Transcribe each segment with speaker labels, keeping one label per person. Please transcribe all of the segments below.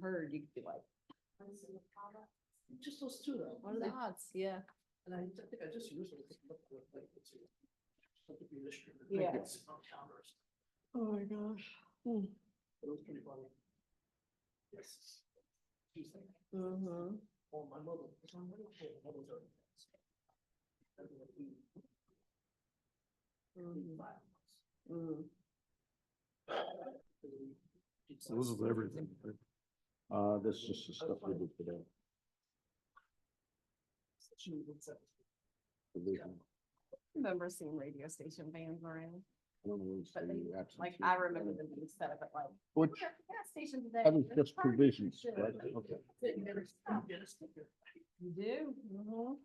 Speaker 1: heard, you could be like,
Speaker 2: Just those two though.
Speaker 1: what are the odds? Yeah.
Speaker 2: And I ju- think I just used them.
Speaker 1: Yeah.
Speaker 2: Oh my gosh. It was pretty funny. Yes. She's like,
Speaker 1: Mm-hmm.
Speaker 2: oh, my mother. it's on my mother, oh, my mother's already passed." And then we- we
Speaker 1: Mm-hmm.
Speaker 2: filed this. And we did
Speaker 3: Those
Speaker 2: some-
Speaker 3: is everything. right? Uh, that's just the stuff we did today.
Speaker 2: She was upset.
Speaker 3: the vision.
Speaker 1: Remember seeing radio station vans around,
Speaker 3: I don't know what's
Speaker 1: But
Speaker 3: the
Speaker 1: they-
Speaker 3: absentee.
Speaker 1: like I remember them being set up at like,
Speaker 3: Which,
Speaker 1: we're at the gas station today.
Speaker 3: that was
Speaker 1: Let's
Speaker 3: just
Speaker 1: park here."
Speaker 3: provisions,
Speaker 1: Shit.
Speaker 3: right? Okay.
Speaker 2: They never stopped. Get a sticker.
Speaker 1: You do? Mm-hmm.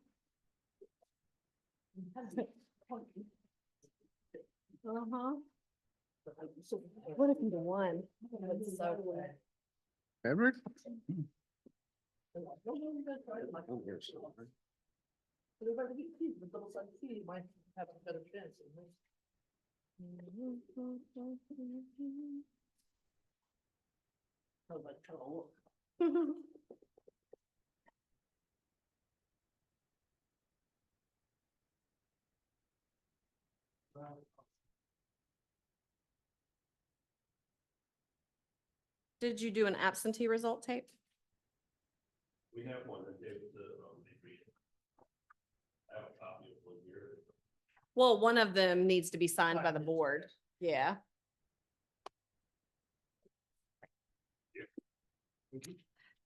Speaker 1: Uh-huh.
Speaker 2: But I'm so-
Speaker 4: What happened to one?
Speaker 1: It's so good.
Speaker 3: Ever?
Speaker 2: I'm like, "No, no, you guys try it." I'm like,
Speaker 3: Oh, yes.
Speaker 2: But if I could get keys, the double sided key might have a better chance. it might- I was like, trying to look. Well,
Speaker 4: Did you do an absentee result tape?
Speaker 5: We have one that they, the, um, they read. it. I have a copy of one here.
Speaker 4: Well, one of them needs to be signed by the
Speaker 2: Signed.
Speaker 4: board. Yeah.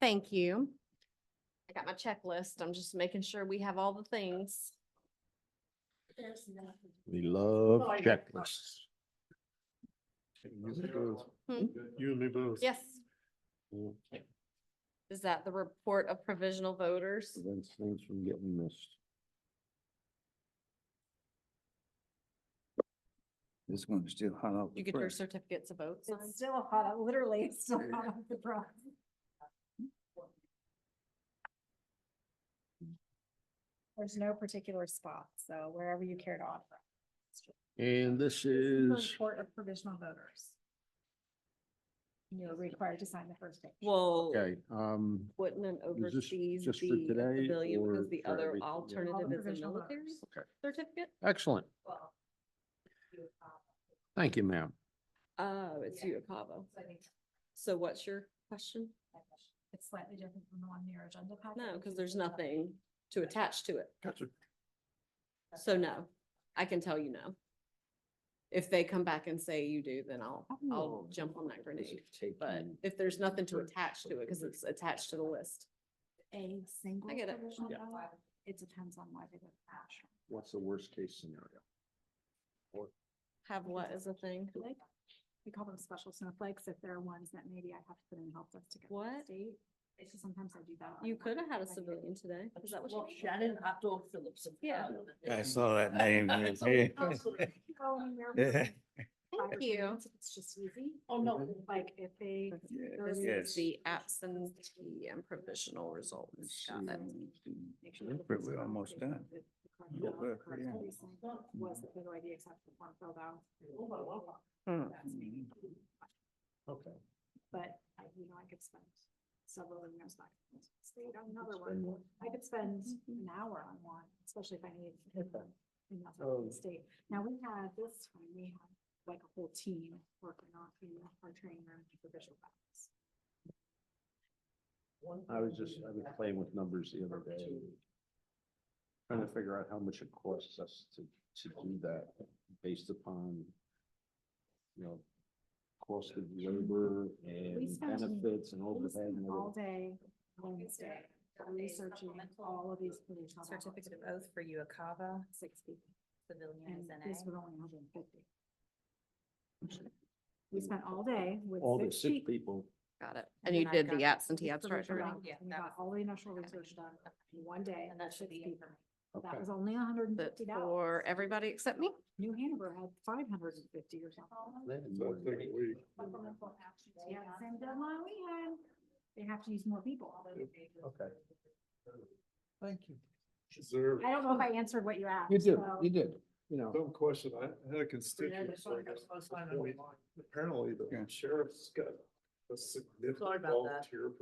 Speaker 4: Thank you. I got my checklist. I'm just making sure we have all the things.
Speaker 2: there's nothing.
Speaker 3: We love
Speaker 2: Oh, I know.
Speaker 3: checklists.
Speaker 4: Hmm.
Speaker 3: You and me both.
Speaker 4: Yes.
Speaker 3: Yeah,
Speaker 4: Is that the report of provisional voters?
Speaker 3: Prevents things from getting missed.
Speaker 6: This one's still hot off
Speaker 4: You
Speaker 6: the
Speaker 4: get your
Speaker 6: press.
Speaker 4: certificates of vote signed?
Speaker 1: It's still hot, literally, it's still hot off the press.
Speaker 7: There's no particular spot, so wherever you care to offer.
Speaker 3: And this
Speaker 7: This
Speaker 3: is,
Speaker 7: is the Report of provisional voters. And You're required to sign the first page.
Speaker 4: Well,
Speaker 3: okay, um,
Speaker 4: wouldn't an
Speaker 3: is this
Speaker 4: overseas
Speaker 3: just for
Speaker 4: be a
Speaker 3: today
Speaker 4: pavilion
Speaker 3: or
Speaker 4: because the
Speaker 3: for
Speaker 4: other
Speaker 3: everything?
Speaker 7: All
Speaker 4: alternative is a
Speaker 7: provisional
Speaker 4: military
Speaker 7: voters.
Speaker 4: certificate?
Speaker 3: excellent.
Speaker 2: Well,
Speaker 7: uh,
Speaker 3: Thank you, ma'am.
Speaker 4: Oh, it's
Speaker 2: Yeah.
Speaker 4: Uacavo.
Speaker 7: So I think
Speaker 4: So what's your question?
Speaker 7: It's slightly different from the one in your agenda packet.
Speaker 4: No, because there's nothing to attach to it.
Speaker 3: Gotcha.
Speaker 4: So no, I can tell you no. If they come back and say you do, then I'll, I'll jump on that grenade. Oh. mm. But if there's nothing to attach to it, because it's attached to the list.
Speaker 7: A single
Speaker 4: I get it.
Speaker 7: provisional
Speaker 3: Yeah.
Speaker 7: ballot. It depends on why they go cash.
Speaker 3: What's the worst case scenario?
Speaker 4: Have what is a thing?
Speaker 7: We call them special snowflakes if there are ones that maybe I have to put in help desk to get. from the
Speaker 4: What?
Speaker 7: State. It's just sometimes I do that. on
Speaker 4: You
Speaker 7: my
Speaker 4: could have had a
Speaker 7: own, like,
Speaker 4: civilian today.
Speaker 2: I
Speaker 4: Is that what
Speaker 2: just
Speaker 4: you?
Speaker 2: love Shannon Outdoor Phillips. and
Speaker 4: Yeah.
Speaker 2: Tyler that they-
Speaker 6: I saw that name. yes, yeah.
Speaker 7: Oh, and they're-
Speaker 4: Thank
Speaker 7: five
Speaker 4: you.
Speaker 7: minutes, It's just easy.
Speaker 2: Oh, no.
Speaker 7: Like if they.
Speaker 4: This
Speaker 7: Yes.
Speaker 4: is
Speaker 6: Yes.
Speaker 4: the absentee and provisional results. Got it.
Speaker 3: Hmm.
Speaker 7: make sure that
Speaker 6: We're-
Speaker 7: it's
Speaker 6: we're
Speaker 7: not
Speaker 6: almost
Speaker 7: based on
Speaker 6: done.
Speaker 7: the- the correct-
Speaker 2: Yeah.
Speaker 7: the correct
Speaker 6: Yeah.
Speaker 7: reason
Speaker 3: Oh,
Speaker 7: Was that the right idea except for one filled out?
Speaker 2: Oh, my God.
Speaker 7: That's me.
Speaker 3: Okay.
Speaker 7: But I, you know, I could spend several of those back. and forth. Stayed on another one. I could spend an hour on one, especially if I needed. to do them in that part of the State. Now we had this time, we had like a whole team working on in our training room for visual battles.
Speaker 2: One-
Speaker 3: I was just, I was playing with numbers the other day, trying to figure out how much it costs us to, to do that based upon, you know, cost of labor and
Speaker 7: spent
Speaker 3: benefits and
Speaker 7: We
Speaker 3: overhead
Speaker 7: spent
Speaker 3: and
Speaker 7: all
Speaker 3: all.
Speaker 7: day Wednesday researching all of these provisional ballots.
Speaker 8: Certificate of oath for Uakava,
Speaker 7: Six people.
Speaker 8: civilian
Speaker 7: And
Speaker 8: is
Speaker 7: this
Speaker 8: NA.
Speaker 7: was only hundred and fifty. We spent all day with.
Speaker 3: All the sick
Speaker 7: people.
Speaker 3: people,
Speaker 4: Got it. And
Speaker 7: And
Speaker 4: you
Speaker 7: then I
Speaker 4: did
Speaker 7: got
Speaker 4: the absentee
Speaker 7: the
Speaker 4: abstract
Speaker 7: provisional
Speaker 4: already.
Speaker 7: ballots,
Speaker 8: Yeah,
Speaker 7: and We
Speaker 8: that
Speaker 7: got
Speaker 8: was-
Speaker 7: all the initial
Speaker 8: okay.
Speaker 7: research done in one day.
Speaker 8: And that
Speaker 7: with
Speaker 8: should be
Speaker 7: six people.
Speaker 8: information.
Speaker 3: okay.
Speaker 7: That was only hundred and
Speaker 4: But
Speaker 7: fifty dollars.
Speaker 4: for everybody except me?
Speaker 7: New Hanover had five hundred and fifty or something.
Speaker 3: They had more than that.
Speaker 7: Yeah, same deadline we had. They have to use more people.
Speaker 3: Okay.
Speaker 6: Thank you.
Speaker 5: Deserve.
Speaker 7: I don't know if I answered what you asked.
Speaker 3: You did,
Speaker 7: so-
Speaker 3: you did, you know,
Speaker 5: Dumb question. I had a
Speaker 2: Yeah,
Speaker 5: constituent.
Speaker 2: that's what I got, so I signed it online.
Speaker 5: Apparently the
Speaker 6: Yeah.
Speaker 5: sheriff's got a
Speaker 2: Sorry
Speaker 5: significant
Speaker 2: about that.
Speaker 5: volunteer